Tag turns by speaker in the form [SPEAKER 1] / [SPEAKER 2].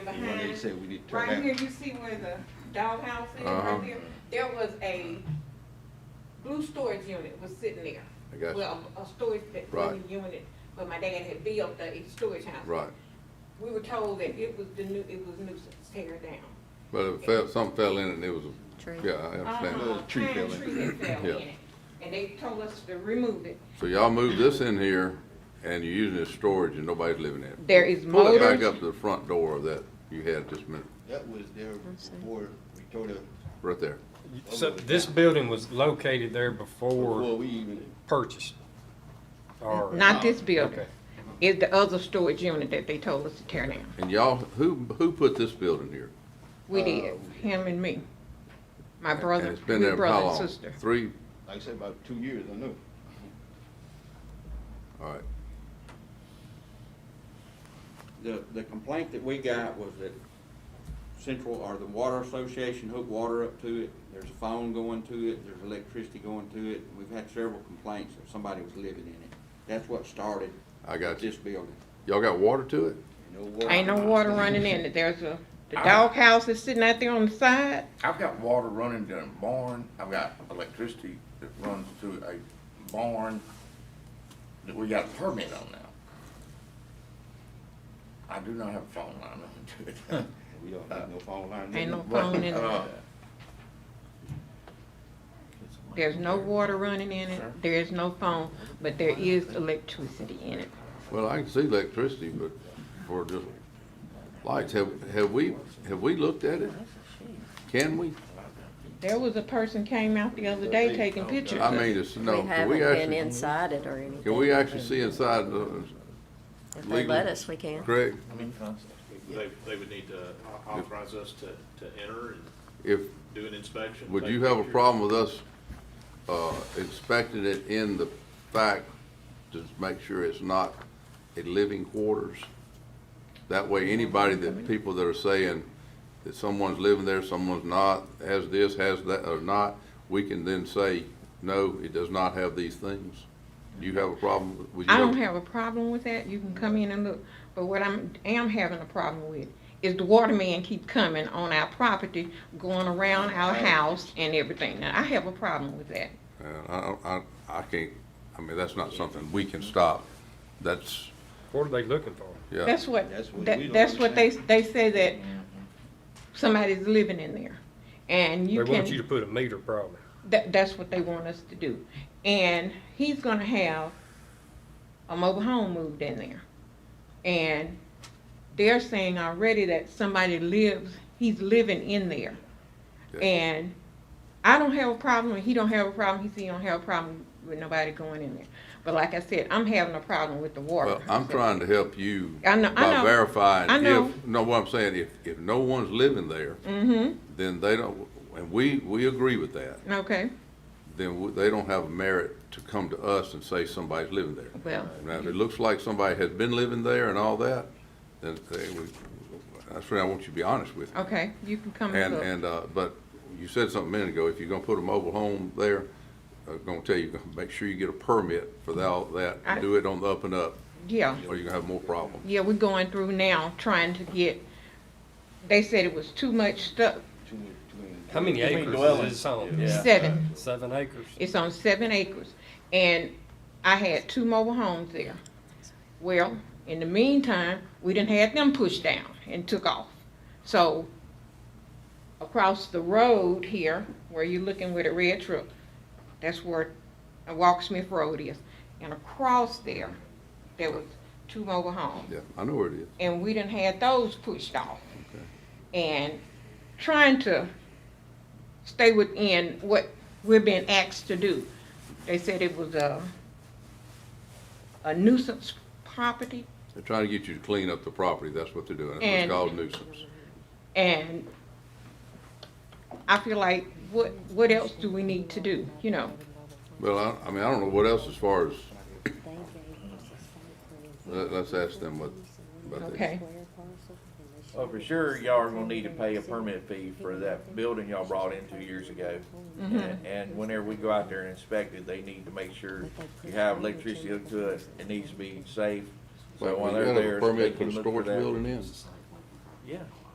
[SPEAKER 1] said we need to tear
[SPEAKER 2] Right here,
[SPEAKER 1] down.
[SPEAKER 2] you see where the doghouse is
[SPEAKER 3] Uh-huh.
[SPEAKER 2] right there? There was a blue storage unit was sitting there.
[SPEAKER 3] I got you.
[SPEAKER 2] Well, a a storage bit-
[SPEAKER 3] Right.
[SPEAKER 2] unit, but my dad had built a storage house.
[SPEAKER 3] Right,
[SPEAKER 2] We were told that it was the new, it was nuisance, tear it down.
[SPEAKER 3] but it fell, something fell in and it was,
[SPEAKER 4] Tree.
[SPEAKER 3] a yeah, I understand.
[SPEAKER 2] Uh-huh,
[SPEAKER 1] Little tree
[SPEAKER 2] pine
[SPEAKER 1] fell in.
[SPEAKER 2] tree that fell
[SPEAKER 3] Yeah.
[SPEAKER 2] in it. And they told us to remove it.
[SPEAKER 3] So y'all move this in here and you're using it as storage and nobody's living in it.
[SPEAKER 2] There is
[SPEAKER 3] Pull
[SPEAKER 2] motors.
[SPEAKER 3] it back up to the front door of that you had just a minute,
[SPEAKER 1] That was there before we tore the,
[SPEAKER 3] right there.
[SPEAKER 5] So this building was located there before
[SPEAKER 1] before we even,
[SPEAKER 5] purchased? or-
[SPEAKER 2] Not
[SPEAKER 3] Uh,
[SPEAKER 2] this building.
[SPEAKER 5] Okay.
[SPEAKER 2] It's the other storage unit that they told us to tear down.
[SPEAKER 3] And y'all, who, who put this building here?
[SPEAKER 2] We did, him and me. My brother,
[SPEAKER 3] Uh, And it's been
[SPEAKER 2] my
[SPEAKER 3] there for how
[SPEAKER 2] brother and
[SPEAKER 3] long?
[SPEAKER 2] sister.
[SPEAKER 3] Three,
[SPEAKER 1] like I said, about two years, I know.
[SPEAKER 3] all right.
[SPEAKER 6] The, the complaint that we got was that Central, or the Water Association hooked water up to it, there's a phone going to it, there's electricity going to it, we've had several complaints that somebody was living in it. That's what started.
[SPEAKER 3] I got you.
[SPEAKER 6] This building.
[SPEAKER 3] Y'all got water to it?
[SPEAKER 6] No water.
[SPEAKER 2] Ain't no water running in it. There's a, the doghouse is sitting out there on the side.
[SPEAKER 7] I've got water running to a barn, I've got electricity that runs to a barn that we got a permit on now. I do not have a phone line on to it.
[SPEAKER 1] We don't have no phone line.
[SPEAKER 2] Ain't no
[SPEAKER 7] But,
[SPEAKER 2] phone in it.
[SPEAKER 7] uh,
[SPEAKER 2] There's no water running in it. There is no phone, but there is electricity in it.
[SPEAKER 3] Well, I can see electricity, but for just lights, have, have we, have we looked at it? Can we?
[SPEAKER 2] There was a person came out the other day taking pictures
[SPEAKER 3] I
[SPEAKER 2] of it.
[SPEAKER 3] mean, it's,
[SPEAKER 4] We
[SPEAKER 3] no, can
[SPEAKER 4] haven't
[SPEAKER 3] we
[SPEAKER 4] been
[SPEAKER 3] actually,
[SPEAKER 4] inside it or anything.
[SPEAKER 3] can we actually see inside the,
[SPEAKER 4] If they
[SPEAKER 3] legal-
[SPEAKER 4] let us, we can.
[SPEAKER 3] Craig?
[SPEAKER 8] They, they would need to authorize us to, to enter and
[SPEAKER 3] If,
[SPEAKER 8] do an inspection.
[SPEAKER 3] would
[SPEAKER 8] take
[SPEAKER 3] you have a
[SPEAKER 8] pictures.
[SPEAKER 3] problem with us, uh, inspecting it in the fact to make sure it's not a living quarters? That way, anybody that, people that are saying that someone's living there, someone's not, has this, has that, or not, we can then say, no, it does not have these things. Do you have a problem? with-
[SPEAKER 2] I don't have a problem with that. You can come in and look. But what I'm, am having a problem with is the waterman keep coming on our property, going around our house and everything. Now, I have a problem with that.
[SPEAKER 3] And Uh, I, don't- I, I can't, I mean, that's not something we can stop. That's,
[SPEAKER 5] What are they looking for?
[SPEAKER 3] yeah. Mm-hmm.
[SPEAKER 2] That's what,
[SPEAKER 1] That's what we
[SPEAKER 2] that,
[SPEAKER 1] don't
[SPEAKER 2] that's what they, they say that somebody's living in there. And
[SPEAKER 5] They
[SPEAKER 2] you
[SPEAKER 5] want you to
[SPEAKER 2] can,
[SPEAKER 5] put a meter probably.
[SPEAKER 2] that, that's what they want us to do. And he's gonna have a mobile home moved in there. And they're saying already that somebody lives, he's living in there.
[SPEAKER 3] Yeah.
[SPEAKER 2] And I don't have a problem, and he don't have a problem, he said he don't have a problem with nobody going in there. But like I said, I'm having a problem with the water.
[SPEAKER 3] Well, I'm
[SPEAKER 2] So-
[SPEAKER 3] trying to help you
[SPEAKER 2] I know- I
[SPEAKER 3] by
[SPEAKER 2] know. I
[SPEAKER 3] verifying
[SPEAKER 2] know.
[SPEAKER 3] if, no, what I'm saying, if, if no one's living there,
[SPEAKER 2] Mm-hmm.
[SPEAKER 3] then they don't, and we, we agree with that,
[SPEAKER 2] Okay,
[SPEAKER 3] then we- they don't have merit to come to us and say somebody's living there.
[SPEAKER 2] well.
[SPEAKER 3] Now, if it looks like somebody has been living there and all that, then they, we, that's where I want you to be honest with me.
[SPEAKER 2] Okay, you can come
[SPEAKER 3] And,
[SPEAKER 2] look.
[SPEAKER 3] and, uh, but you said something a minute ago, if you're gonna put a mobile home there, I'm gonna tell you, make sure you get a permit for that, that,
[SPEAKER 2] I-
[SPEAKER 3] do it on the up and up,
[SPEAKER 2] yeah,
[SPEAKER 3] or you're gonna have more problems.
[SPEAKER 2] yeah, we're going through now trying to get. They said it was too much stuff.
[SPEAKER 1] Too many- too many-
[SPEAKER 5] How many
[SPEAKER 7] How many
[SPEAKER 5] acres is
[SPEAKER 7] dwellings?
[SPEAKER 5] this on?
[SPEAKER 7] Yeah.
[SPEAKER 2] Seven.
[SPEAKER 5] Seven acres?
[SPEAKER 2] It's on seven acres, and I had two mobile homes there. Well, in the meantime, we didn't had them pushed down and took off. So across the road here, where you're looking with a red truck, that's where uh, Walksmith Road is, and across there, there was two mobile homes.
[SPEAKER 3] Yeah, I know where it is.
[SPEAKER 2] and we didn't had those pushed off. And trying to stay within what we're being asked to do. They said it was a, a nuisance property,
[SPEAKER 3] They're trying to get you to clean up the property, that's what they're doing, That's
[SPEAKER 2] And-
[SPEAKER 3] what's called nuisance.
[SPEAKER 2] and I feel like, what, what else do we need to do, you know?
[SPEAKER 3] Well, I, I mean, I don't know what else as far as,
[SPEAKER 4] They gave us a
[SPEAKER 3] let, let's ask them what, about that.
[SPEAKER 2] Okay,
[SPEAKER 7] Well, Oh, for sure, y'all are gonna need to pay a permit fee for that building y'all brought in two years ago. And- And whenever we go out there and inspect it, they need to make sure you have electricity hooked to it, it needs to be safe. So
[SPEAKER 3] Well,
[SPEAKER 7] while
[SPEAKER 3] you
[SPEAKER 7] they're
[SPEAKER 3] gotta have a
[SPEAKER 7] there. they
[SPEAKER 3] Permit for
[SPEAKER 7] can
[SPEAKER 3] the
[SPEAKER 7] look for
[SPEAKER 3] storage
[SPEAKER 7] that.
[SPEAKER 3] building in,
[SPEAKER 7] Yeah,